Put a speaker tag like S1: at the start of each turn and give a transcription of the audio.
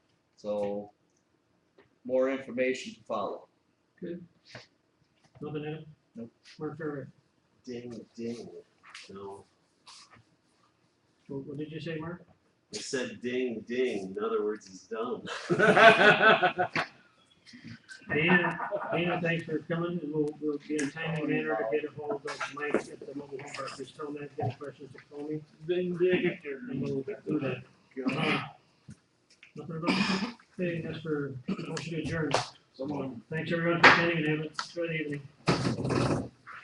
S1: So, more information to follow.
S2: Nothing in it?
S1: Nope.
S2: Mark Ferry,
S3: Ding, ding. No,
S2: what, what did you say, Mark?
S3: it said ding, ding. In other words, he's dumb.
S2: Dana, Dana, thanks for coming, and we'll, we'll be in a timely manner to get a hold of Mike at the mobile home park, just tell him that, if you have any questions, just call me.
S4: Ding, ding.
S2: And we'll do that. Uh, Nothing about, hey, that's for, motion to adjourn.
S1: Someone
S2: Thanks everyone for attending and have a good evening.